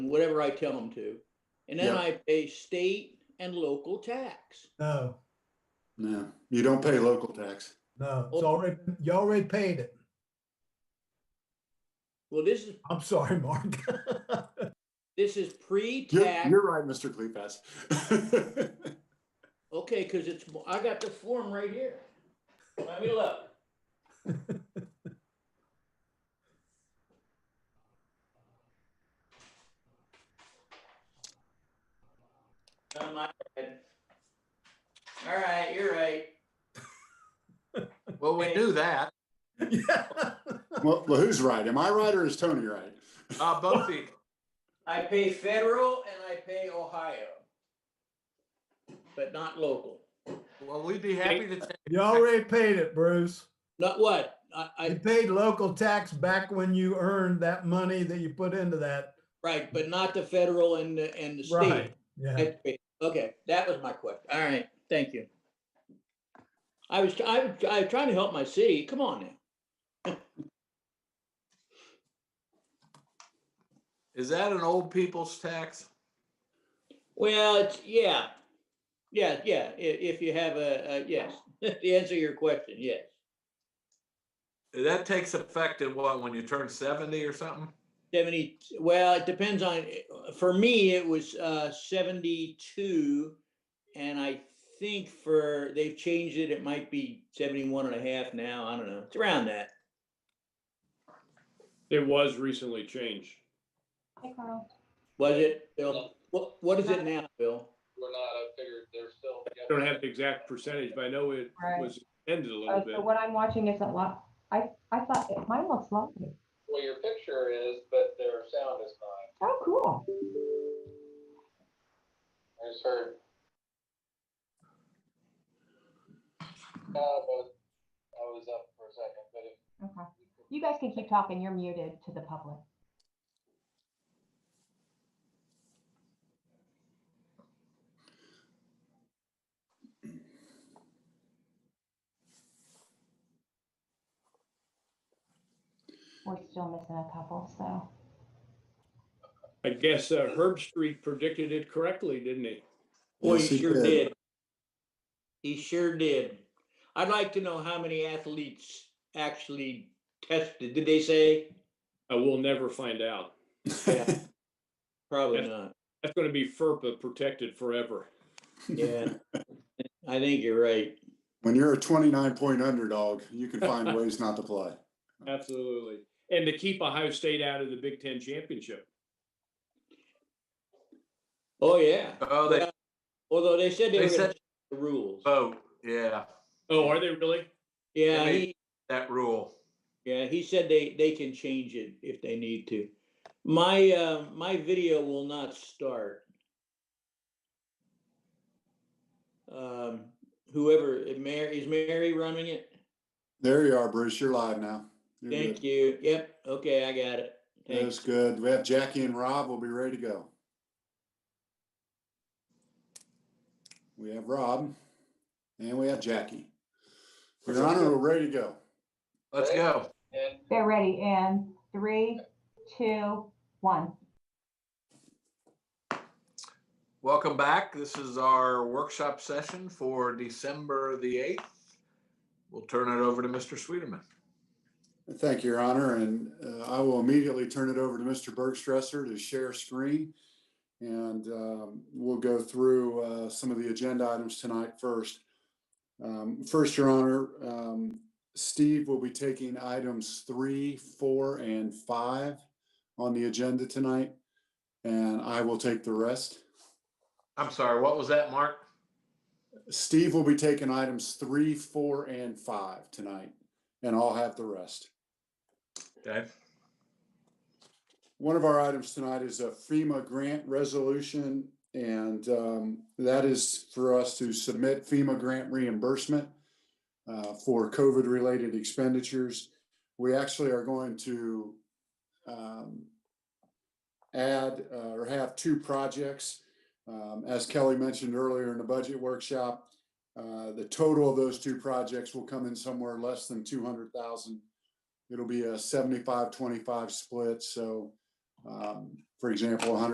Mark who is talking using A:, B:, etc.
A: whatever I tell them to. And then
B: Yeah.
A: I pay state and local tax.
C: No,
B: No, you don't pay local tax.
C: no, it's already, you already paid it.
A: Well, this is,
C: I'm sorry, Mark.
A: this is
B: You're,
A: pre-tax.
B: you're right, Mr. Kleefas.
A: Okay, because it's, I got the form right here. Let me look. On my head. All right, you're right.
D: Well, we
A: Okay.
D: knew that.
C: Yeah.
B: Well, well, who's right? Am I right or is Tony right?
D: Uh, both of you.
A: I pay federal and I pay Ohio. But not local.
D: Well, we'd be happy to take.
C: You already paid it, Bruce.
A: Not what? I,
C: You
A: I,
C: paid local tax back when you earned that money that you put into that.
A: right, but not the federal and the, and the state.
C: Right, yeah.
A: Okay, Okay, that was my question. All right, thank you. I was, I was, I was trying to help my city. Come on now.
D: Is that an old people's tax?
A: Well, it's, yeah. Yeah, yeah, i- if you have a, a, yes, the answer to your question, yes.
D: That takes effect in what, when you turn seventy or something?
A: Seventy, well, it depends on, for me, it was uh seventy-two. And I think for, they've changed it, it might be 71 and a half now, I don't know, it's around that.
E: It was recently changed.
F: Hey, Carl.
A: Was it, Bill?
G: No.
A: What, what is it now, Bill?
G: We're not, I figured they're still.
E: I don't have the exact percentage, but I know it
F: Right.
E: was ended a little
F: Oh,
E: bit.
F: so what I'm watching isn't live. I, I thought it- mine looks live.
G: Well, your picture is, but their sound is not.
F: Oh, cool.
G: I just heard. Uh, but I was up for a second, but if.
F: Okay. You guys can keep talking. You're muted to the public. We're still missing a couple, so.
E: I guess uh, Herb Street predicted it correctly, didn't he?
A: Boy,
B: Yes,
A: he
B: he
A: sure
B: did.
A: did. He sure did. I'd like to know how many athletes actually tested. Did they say?
E: I will never find out.
A: Yeah, Probably
E: Yes.
A: not.
E: That's going to be FERPA protected forever.
A: Yeah. I think you're right.
B: When you're a 29 point underdog, you can find ways not to play.
E: Absolutely. And to keep Ohio State out of the Big Ten championship.
A: Oh, yeah.
D: Oh, they
A: Although they said they
D: They
A: were gonna
D: said-
A: change the rules.
D: vote, yeah,
E: Oh, are they really?
A: Yeah,
D: they-
A: he,
D: that rule.
A: yeah, he said they, they can change it if they need to. My, uh, my video will not start. Um, whoever, Mary, is Mary running it?
B: There you are, Bruce. You're live now. You're
A: Thank
B: good.
A: you. Yep, okay, I got it.
B: That's
A: Thanks.
B: good. We have Jackie and Rob. We'll be ready to go. We have Rob and we have Jackie. Your Honor, we're ready to go.
D: Let's go.
G: And
F: They're ready in three, two, one.
D: Welcome back. This is our workshop session for December the eighth. We'll turn it over to Mr. Sweeterman.
B: Thank you, Your Honor, and uh, I will immediately turn it over to Mr. Bergstresser to share screen. And um, we'll go through uh, some of the agenda items tonight first. Um, First, Your Honor, um, Steve will be taking items three, four, and five on the agenda tonight, and I will take the rest.
D: I'm sorry, what was that, Mark?
B: Steve will be taking items three, four, and five tonight, and I'll have the rest.
D: Okay,
B: One of our items tonight is a FEMA grant resolution, and um, that is for us to submit FEMA grant reimbursement uh, for COVID-related expenditures. We actually are going to um, add uh, or have two projects. Um, As Kelly mentioned earlier in the budget workshop, uh, the total of those two projects will come in somewhere less than 200,000 it'll be a 75-25 split, so, um, for example, hundred